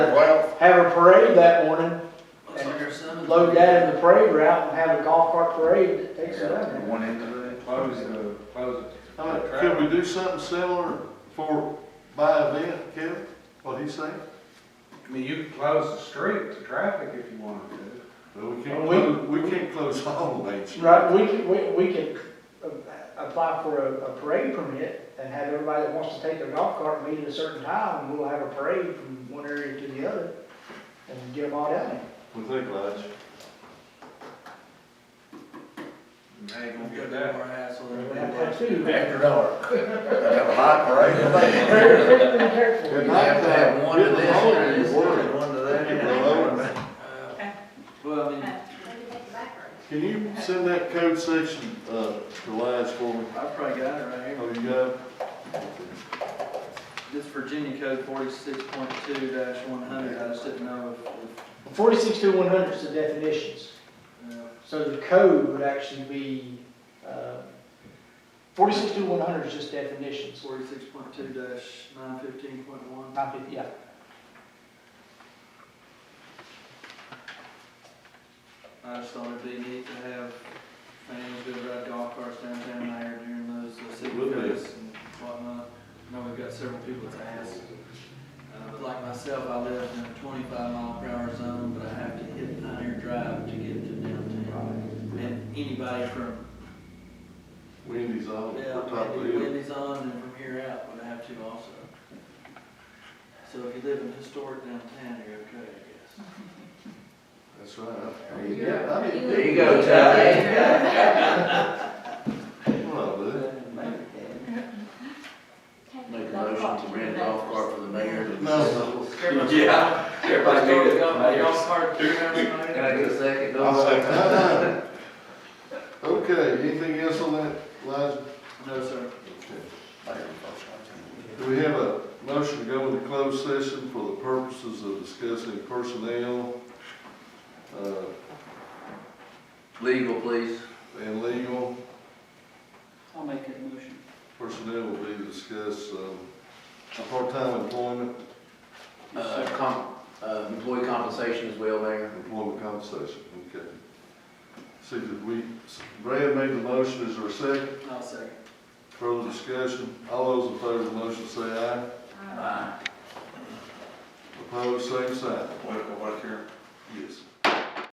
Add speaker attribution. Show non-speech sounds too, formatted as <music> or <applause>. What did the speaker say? Speaker 1: have a parade that morning,
Speaker 2: Looks like there's some.
Speaker 1: load that in the parade route and have a golf cart parade that takes it
Speaker 3: Yeah,
Speaker 1: out.
Speaker 3: One end of it.
Speaker 4: Close the, close
Speaker 1: I mean,
Speaker 4: the
Speaker 5: Could we
Speaker 4: track.
Speaker 5: do something similar for, by event, Kevin, what he's saying?
Speaker 4: I mean, you could close the street to traffic if you wanted to.
Speaker 5: Well, we can't, clo- we can't close all lanes.
Speaker 1: Right, we, could- we, we could uh, apply for a, a parade permit and have everybody that wants to take their golf cart meet at a certain time, and we'll have a parade from one area to the other, and get them all down there.
Speaker 5: We think, Lige.
Speaker 4: Hey, you gonna
Speaker 2: We've got that
Speaker 4: get that.
Speaker 2: more hassle than
Speaker 1: We
Speaker 2: we
Speaker 1: have to
Speaker 2: have.
Speaker 1: have two.
Speaker 3: After dark. Have a hot parade.
Speaker 1: Very, very careful.
Speaker 3: You have to have one to
Speaker 5: Good
Speaker 3: this
Speaker 5: Lord,
Speaker 3: and
Speaker 5: it's
Speaker 3: one- one to that.
Speaker 5: Good
Speaker 3: and
Speaker 5: Lord.
Speaker 3: one to-
Speaker 2: Uh, Well, I mean,
Speaker 5: Can you send that code section, uh, to Lige for me?
Speaker 2: I've probably got it right here.
Speaker 5: Oh, you got it?
Speaker 2: This Virginia code forty-six point two one hundred, I just didn't know if,
Speaker 1: Forty-six to one hundred is the definitions.
Speaker 2: if, uh,
Speaker 1: So the code would actually be, uh, forty-six to one hundred is just definitions, or
Speaker 2: forty-six point two nine fifteen point one.
Speaker 1: not fifty, yeah.
Speaker 2: I just thought it'd be neat to have fans go ride golf carts downtown there during those uh, city
Speaker 5: Would be.
Speaker 2: fairs and whatnot. I know we've got several people that's asked. Uh, but like myself, I live in a twenty-five mile per hour zone, but I have to hit Pioneer Drive to get to downtown. And anybody from,
Speaker 5: Wendy's on,
Speaker 2: yeah,
Speaker 5: we're top of the
Speaker 2: Wendy-
Speaker 5: hill.
Speaker 2: Wendy's on and from here out would have to also. So if you live in historic downtown, you're okay, I guess.
Speaker 5: That's right.
Speaker 3: There you
Speaker 5: Yeah, I mean,
Speaker 3: There you go, Ty.
Speaker 5: well, dude.
Speaker 3: Make a motion to rent a golf cart for the mayor. to-
Speaker 5: No.
Speaker 3: Yeah. Everybody made it.
Speaker 2: Golf cart, two hours
Speaker 3: <laughs> Can I get a second?
Speaker 5: I was like, no, no. Okay, anything else on that, Lige?
Speaker 2: No, sir.
Speaker 5: Do we have a motion to go into closed session for the purposes of discussing personnel, uh,
Speaker 3: Legal, please.
Speaker 5: and legal?
Speaker 2: I'll make that motion.
Speaker 5: Personnel will be discussed, um, part-time employment,
Speaker 3: Uh, com, uh, employee compensation as well, Mayor.
Speaker 5: employment compensation, okay. See, did we, Brad made the motion, is there a second?
Speaker 2: I'll second.
Speaker 5: Further discussion, all those in favor of the motion say aye.
Speaker 3: Aye.
Speaker 5: Opposed, same sign.
Speaker 4: What, what if you're
Speaker 5: Yes.